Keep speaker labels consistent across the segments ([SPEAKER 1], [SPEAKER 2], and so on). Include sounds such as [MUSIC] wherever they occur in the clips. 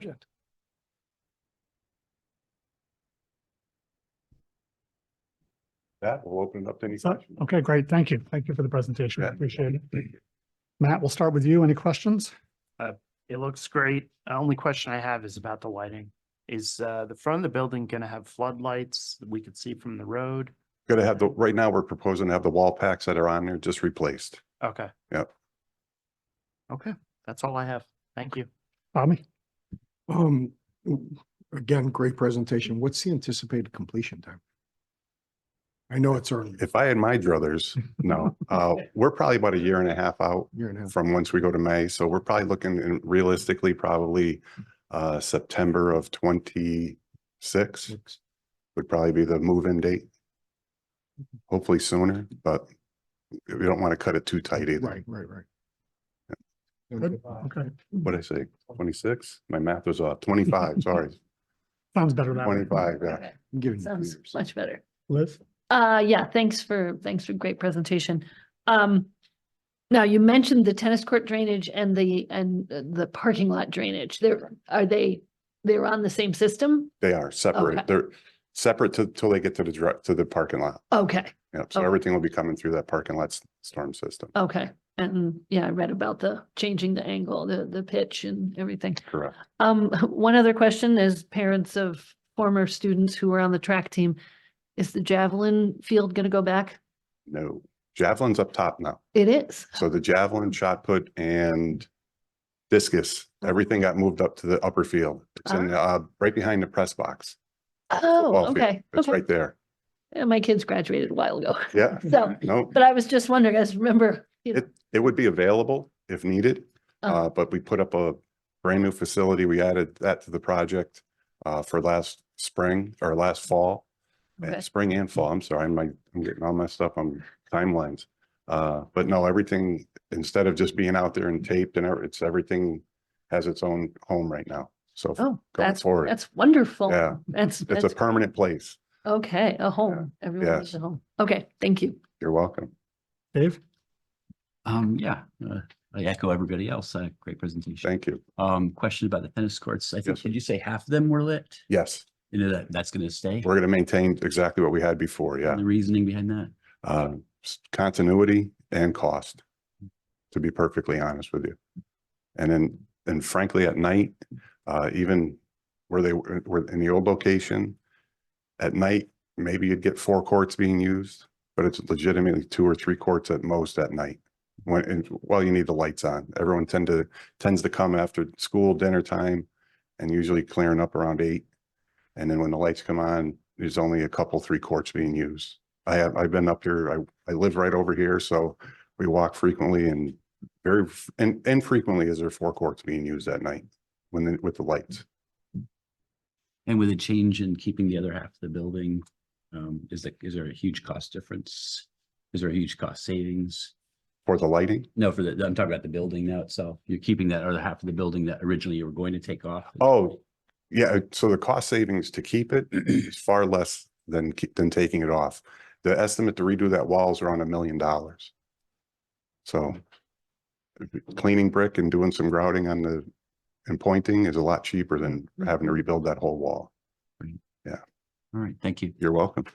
[SPEAKER 1] project.
[SPEAKER 2] That will open it up to any
[SPEAKER 1] So,
[SPEAKER 2] questions.
[SPEAKER 1] okay, great. Thank you. Thank you for the presentation.
[SPEAKER 2] Yeah.
[SPEAKER 1] Appreciate it. Matt, we'll start with you. Any questions?
[SPEAKER 3] It looks great. The Only question I have is about the lighting. Is uh, the front of the building going to have floodlights that we could see from the road?
[SPEAKER 2] Gonna have the, right now, we're proposing to have the wall packs that are on there just replaced.
[SPEAKER 3] Okay.
[SPEAKER 2] Yep.
[SPEAKER 3] Okay, that's all I have. Thank you.
[SPEAKER 1] Bobby?
[SPEAKER 4] Um, w- again, great presentation. What's the anticipated completion time? I know it's early,
[SPEAKER 2] If I had my druthers,
[SPEAKER 1] [LAUGHS]
[SPEAKER 2] no, uh, we're probably about a year and a half out
[SPEAKER 4] year and a half.
[SPEAKER 2] from once we go to May. So we're probably looking in- realistically, probably uh, September of twenty-six
[SPEAKER 4] six.
[SPEAKER 2] would probably be the move-in date.
[SPEAKER 1] Mm-hmm.
[SPEAKER 2] Hopefully sooner, but we don't want to cut it too tight either.
[SPEAKER 4] Right, right, right.
[SPEAKER 1] Good. Okay,
[SPEAKER 2] What'd I say? Twenty-six? My math was off.
[SPEAKER 1] [LAUGHS]
[SPEAKER 2] Twenty-five, sorry.
[SPEAKER 1] sounds better that way.
[SPEAKER 2] Twenty-five, yeah.
[SPEAKER 5] Okay,
[SPEAKER 4] I'm giving you
[SPEAKER 5] Sounds
[SPEAKER 4] years.
[SPEAKER 5] much better.
[SPEAKER 1] Liz?
[SPEAKER 5] Uh, yeah, thanks for, thanks for great presentation. Um, now you mentioned the tennis court drainage and the, and uh, the parking lot drainage. There, are they, they're on the same system?
[SPEAKER 2] They are
[SPEAKER 5] Okay.
[SPEAKER 2] separate. They're separate to- till they get to the direct, to the parking lot.
[SPEAKER 5] Okay,
[SPEAKER 2] Yep. So
[SPEAKER 5] Okay.
[SPEAKER 2] everything will be coming through that parking lot s- storm system.
[SPEAKER 5] okay. And yeah, I read about the changing the angle, the, the pitch and everything.
[SPEAKER 2] Correct.
[SPEAKER 5] Um, one other question is parents of former students who were on the track team. Is the javelin field going to go back?
[SPEAKER 2] No. Javelin's up top now.
[SPEAKER 5] It is.
[SPEAKER 2] So the javelin, shot put and discus, everything got moved up to the upper field. It's
[SPEAKER 5] Uh-huh.
[SPEAKER 2] in, uh, right behind the press box.
[SPEAKER 5] Oh,
[SPEAKER 2] football field.
[SPEAKER 5] okay.
[SPEAKER 2] It's
[SPEAKER 5] Okay.
[SPEAKER 2] right there.
[SPEAKER 5] Yeah, My kids graduated a while ago. [LAUGHS]
[SPEAKER 2] Yeah.
[SPEAKER 5] So,
[SPEAKER 2] No,
[SPEAKER 5] but I was just wondering, I just remember, you know,
[SPEAKER 2] it, it would be available if needed.
[SPEAKER 5] uh,
[SPEAKER 2] Uh, but we put up a brand new facility. We added that to the project, uh, for last spring or last fall. and-
[SPEAKER 5] okay.
[SPEAKER 2] Spring and fall. I'm sorry, I'm like, I'm getting all messed up on timelines. Uh, but no, everything, instead of just being out there and taped and every- it's, everything has its own home right now. So
[SPEAKER 5] Oh,
[SPEAKER 2] going
[SPEAKER 5] that's,
[SPEAKER 2] forward.
[SPEAKER 5] that's wonderful.
[SPEAKER 2] Yeah.
[SPEAKER 5] That's,
[SPEAKER 2] It's a
[SPEAKER 5] that's,
[SPEAKER 2] permanent place.
[SPEAKER 5] okay, a home. Everyone needs
[SPEAKER 2] Yes.
[SPEAKER 5] a home. Okay, thank you.
[SPEAKER 2] You're welcome.
[SPEAKER 1] Dave?
[SPEAKER 6] Um, yeah, uh, I echo everybody else. Uh, great presentation.
[SPEAKER 2] Thank you.
[SPEAKER 6] Um, question about the tennis courts. I
[SPEAKER 2] Yes,
[SPEAKER 6] think,
[SPEAKER 2] sir.
[SPEAKER 6] did you say half of them were lit?
[SPEAKER 2] Yes,
[SPEAKER 6] You know, that, that's gonna stay?
[SPEAKER 2] we're going to maintain exactly what we had before. Yeah.
[SPEAKER 6] And The reasoning behind that?
[SPEAKER 2] Uh, s- continuity and cost, to be perfectly honest with you. And then, and frankly, at night, uh, even where they were were in the old location, at night, maybe you'd get four courts being used, but it's legitimately two or three courts at most at night. When, and while you need the lights on, everyone tend to, tends to come after school dinner time and usually clearing up around eight. And then when the lights come on, there's only a couple, three courts being used. I have, I've been up here, I, I live right over here, so we walk frequently and very, f- and infrequently is there four courts being used at night when, the- with the lights.
[SPEAKER 6] And with a change in keeping the other half of the building, um, is that, is there a huge cost difference? Is there a huge cost savings?
[SPEAKER 2] For the lighting?
[SPEAKER 6] No, for the, I'm talking about the building now itself. You're keeping that other half of the building that originally you were going to take off.
[SPEAKER 2] Oh, yeah, so the cost savings to keep it is far less than, ke- than taking it off. The estimate to redo that wall is around a million dollars. So cleaning brick and doing some grouting on the, and pointing is a lot cheaper than having to rebuild that whole wall.
[SPEAKER 6] All right, thank you.
[SPEAKER 2] You're welcome.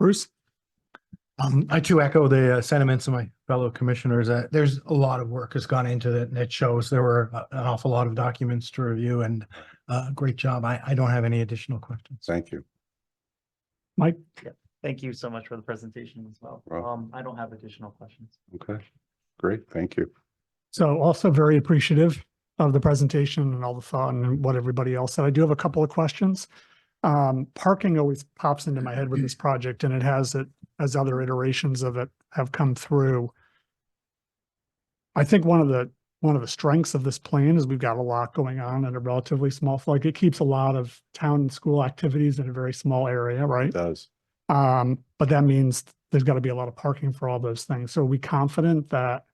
[SPEAKER 1] Bruce?
[SPEAKER 7] Um, I too echo the uh, sentiments of my fellow commissioners. Uh, there's a lot of work has gone into it and it shows there were a- an awful lot of documents to review and, uh, great job. I, I don't have any additional questions.
[SPEAKER 2] Thank you.
[SPEAKER 1] Mike?
[SPEAKER 3] Thank you so much for the presentation as well.
[SPEAKER 2] Well-
[SPEAKER 3] Um, I don't have additional questions.
[SPEAKER 2] Okay, great, thank you.
[SPEAKER 1] So also very appreciative of the presentation and all the thought and what everybody else said. I do have a couple of questions. Um, parking always pops into my head with this project and it has it, as other iterations of it have come through. I think one of the, one of the strengths of this plan is we've got a lot going on in a relatively small, like it keeps a lot of town and school activities in a very small area, right?
[SPEAKER 2] It does.
[SPEAKER 1] Um, but that means there's gotta be a lot of parking for all those things. So are we confident that,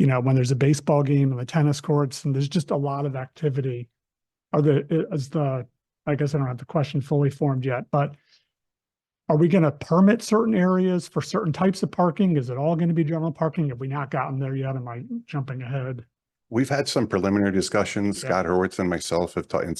[SPEAKER 1] you know, when there's a baseball game and the tennis courts and there's just a lot of activity? Are the, i- is the, I guess I don't have the question fully formed yet, but are we gonna permit certain areas for certain types of parking? Is it all gonna be general parking? Have we not gotten there yet? Am I jumping ahead?
[SPEAKER 2] We've had some preliminary discussions.
[SPEAKER 1] Yeah.
[SPEAKER 2] Scott Hurwitz and myself have talked, and